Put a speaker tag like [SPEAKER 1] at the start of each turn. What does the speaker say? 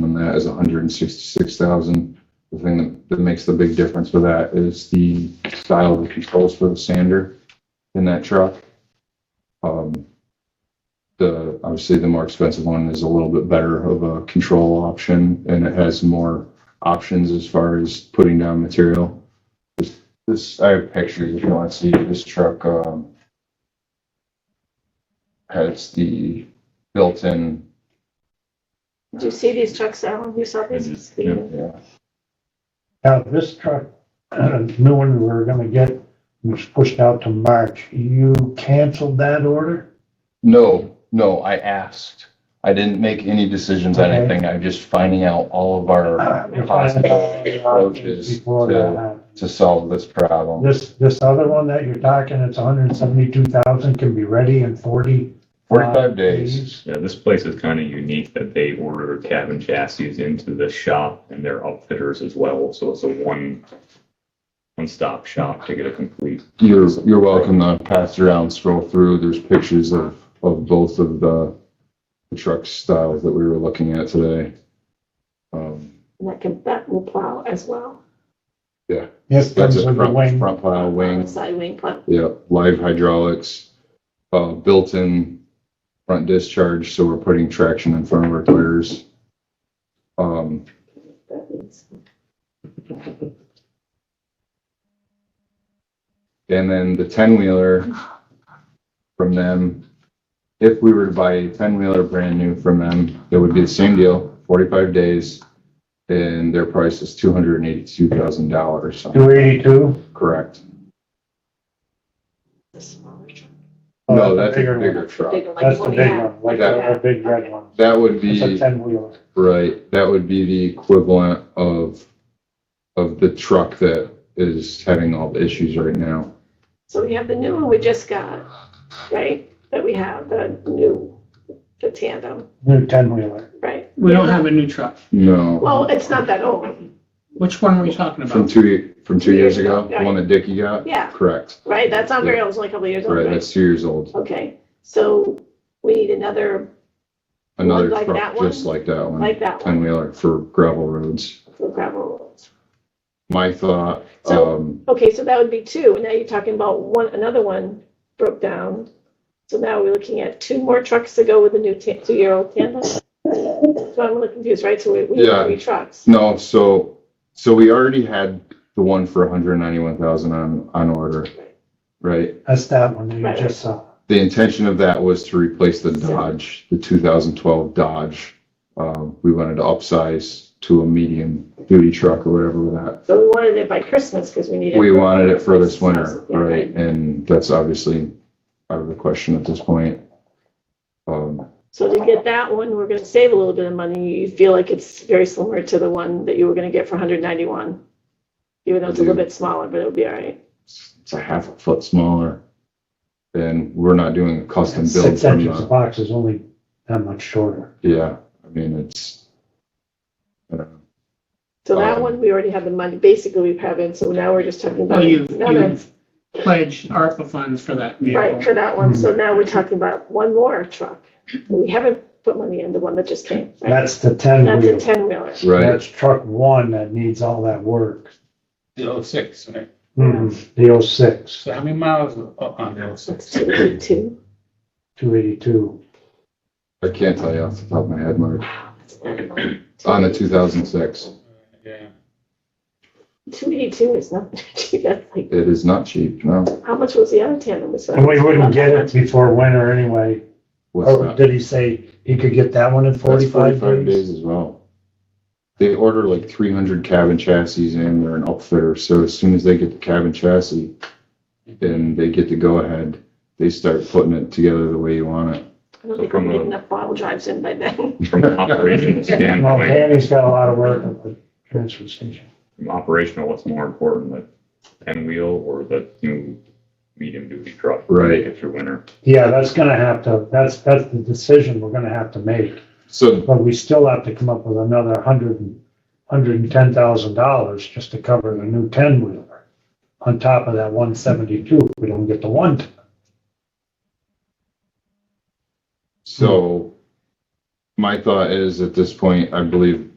[SPEAKER 1] that is 166,000. The thing that- that makes the big difference for that is the style of the controls for the sander in that truck. Um, The, obviously, the more expensive one is a little bit better of a control option, and it has more options as far as putting down material. This- This, I have pictures if you want to see, this truck, um, has the built-in
[SPEAKER 2] Do you see these trucks, Alan? You saw these?
[SPEAKER 1] Yeah,
[SPEAKER 3] Now, this truck, new one we're gonna get, was pushed out to March. You canceled that order?
[SPEAKER 1] No, no, I asked. I didn't make any decisions on
[SPEAKER 3] Okay.
[SPEAKER 1] anything. I'm just finding out all of our
[SPEAKER 2] Uh,
[SPEAKER 1] possible approaches
[SPEAKER 3] Before that
[SPEAKER 1] to,
[SPEAKER 3] happened.
[SPEAKER 1] to solve this problem.
[SPEAKER 3] This, this other one that you're talking, it's hundred and seventy-two thousand, can be ready in forty. uh,
[SPEAKER 1] Forty-five days.
[SPEAKER 4] Yeah, this place is kind of unique that they order cabin chassis into the shop and their outfitters as well. So it's a one, one-stop shop to get a complete.
[SPEAKER 1] You're, you're welcome to pass around, scroll through. There's pictures of, of both of the the truck styles that we were looking at today. Um,
[SPEAKER 2] And that can, that will plow as well.
[SPEAKER 3] This
[SPEAKER 1] That's
[SPEAKER 3] comes
[SPEAKER 1] a
[SPEAKER 3] with the
[SPEAKER 1] front,
[SPEAKER 3] wing.
[SPEAKER 1] front plow wing.
[SPEAKER 2] Side wing plow.
[SPEAKER 1] Yeah, live hydraulics, uh, built-in front discharge, so we're putting traction in front of our tires. Um,
[SPEAKER 2] That means-
[SPEAKER 1] and then the ten-wheeler from them, if we were to buy a ten-wheeler brand new from them, it would be the same deal, forty-five days. And their price is two hundred and eighty-two thousand dollars,
[SPEAKER 3] Two eighty-two?
[SPEAKER 1] correct?
[SPEAKER 2] the smaller truck.
[SPEAKER 3] Oh,
[SPEAKER 1] No, that's a bigger truck.
[SPEAKER 2] Bigger, like
[SPEAKER 3] That's the
[SPEAKER 2] what we
[SPEAKER 3] big
[SPEAKER 2] have.
[SPEAKER 3] one, like
[SPEAKER 1] That-
[SPEAKER 3] the big red one.
[SPEAKER 1] That would be.
[SPEAKER 3] It's a ten-wheeler.
[SPEAKER 1] Right, that would be the equivalent of, of the truck that is having all the issues right now.
[SPEAKER 2] So we have the new one we just got, right? That we have, the new, the tandem,
[SPEAKER 3] New ten-wheeler.
[SPEAKER 2] right?
[SPEAKER 5] We don't have a new truck.
[SPEAKER 1] No,
[SPEAKER 2] Well, it's not that old,
[SPEAKER 5] Which one are we talking
[SPEAKER 1] from
[SPEAKER 5] about?
[SPEAKER 1] two, from two years ago, the one that Dickie got?
[SPEAKER 2] Yeah.
[SPEAKER 1] Correct,
[SPEAKER 2] right? That's not very old, it's only a couple of years old,
[SPEAKER 1] right,
[SPEAKER 2] right?
[SPEAKER 1] that's two years old.
[SPEAKER 2] Okay, so we need another
[SPEAKER 1] Another
[SPEAKER 2] Like that
[SPEAKER 1] truck
[SPEAKER 2] one?
[SPEAKER 1] just like that one,
[SPEAKER 2] like that
[SPEAKER 1] ten
[SPEAKER 2] one
[SPEAKER 1] wheeler for gravel roads.
[SPEAKER 2] for gravel roads.
[SPEAKER 1] My thought,
[SPEAKER 2] So-
[SPEAKER 1] um,
[SPEAKER 2] Okay, so that would be two. Now you're talking about one, another one broke down. So now we're looking at two more trucks to go with the new ta- two-year-old tandem. So I'm a little confused, right? So we, we
[SPEAKER 1] Yeah.
[SPEAKER 2] have three trucks.
[SPEAKER 1] no, so, so we already had the one for hundred and ninety-one thousand on, on order, right?
[SPEAKER 3] That's that one that you
[SPEAKER 2] Right.
[SPEAKER 3] just saw.
[SPEAKER 1] the intention of that was to replace the Dodge, the 2012 Dodge. Um, we wanted to upsize to a medium duty truck or whatever with that.
[SPEAKER 2] So we wanted it by Christmas because we needed.
[SPEAKER 1] We wanted it for this winter,
[SPEAKER 2] Yeah,
[SPEAKER 1] right? And that's obviously out of the question at this point. Um,
[SPEAKER 2] So to get that one, we're gonna save a little bit of money. You feel like it's very similar to the one that you were gonna get for hundred ninety-one. Even though it's a little bit smaller, but it'll be all right.
[SPEAKER 1] it's it's a half a foot smaller. And we're not doing a custom build
[SPEAKER 3] Six
[SPEAKER 1] from
[SPEAKER 3] inches
[SPEAKER 1] the,
[SPEAKER 3] of box is only that much shorter.
[SPEAKER 1] yeah, I mean, it's, I don't know.
[SPEAKER 2] So that
[SPEAKER 1] Um,
[SPEAKER 2] one, we already have the money, basically we have it, so now we're just talking
[SPEAKER 5] Well,
[SPEAKER 2] about.
[SPEAKER 5] you've,
[SPEAKER 2] another-
[SPEAKER 5] Oh, you've pledged ARPA funds for that
[SPEAKER 2] Right,
[SPEAKER 5] vehicle.
[SPEAKER 2] for that one,
[SPEAKER 3] Mm-hmm.
[SPEAKER 2] so now we're talking about one more truck. We haven't put money in the one that just came. right?
[SPEAKER 3] That's the
[SPEAKER 2] That's a
[SPEAKER 3] ten-wheeler.
[SPEAKER 2] ten wheeler.
[SPEAKER 1] right?
[SPEAKER 3] That's truck one that needs all that work.
[SPEAKER 6] The oh six, right?
[SPEAKER 3] Mhm, The oh six,
[SPEAKER 6] So how many miles are up on the oh
[SPEAKER 2] That's
[SPEAKER 6] six?
[SPEAKER 2] two eighty-two.
[SPEAKER 3] two eighty-two.
[SPEAKER 1] I can't tell you off the top of my head, Mark. On the
[SPEAKER 2] Two
[SPEAKER 1] 2006,
[SPEAKER 6] Yeah.
[SPEAKER 2] eighty-two is not cheap, that's like,
[SPEAKER 1] it is not cheap, no.
[SPEAKER 2] how much was the other tandem? Was that-
[SPEAKER 3] And we wouldn't get it before winter anyway.
[SPEAKER 1] What's
[SPEAKER 3] Or
[SPEAKER 1] that?
[SPEAKER 3] did he say he could get that one in
[SPEAKER 1] That's
[SPEAKER 3] Oh, forty-five days?
[SPEAKER 1] as well. They order like three hundred cabin chassis and they're an outfitter, so as soon as they get the cabin chassis, then they get to go ahead, they start putting it together the way you want it.
[SPEAKER 2] I don't think we're getting enough bottle drives in by then.
[SPEAKER 4] From an operational
[SPEAKER 3] Well,
[SPEAKER 4] standpoint,
[SPEAKER 3] Danny's got a lot of work at the transfer station.
[SPEAKER 4] from operational, what's more important, the ten wheel or the new medium duty truck?
[SPEAKER 1] Right.
[SPEAKER 4] If you're winter.
[SPEAKER 3] Yeah, that's gonna have to, that's, that's the decision we're gonna have to make.
[SPEAKER 1] So,
[SPEAKER 3] But we still have to come up with another hundred and, hundred and ten thousand dollars just to cover the new ten-wheeler. On top of that one seventy-two, if we don't get the one. ton.
[SPEAKER 1] so my thought is at this point, I believe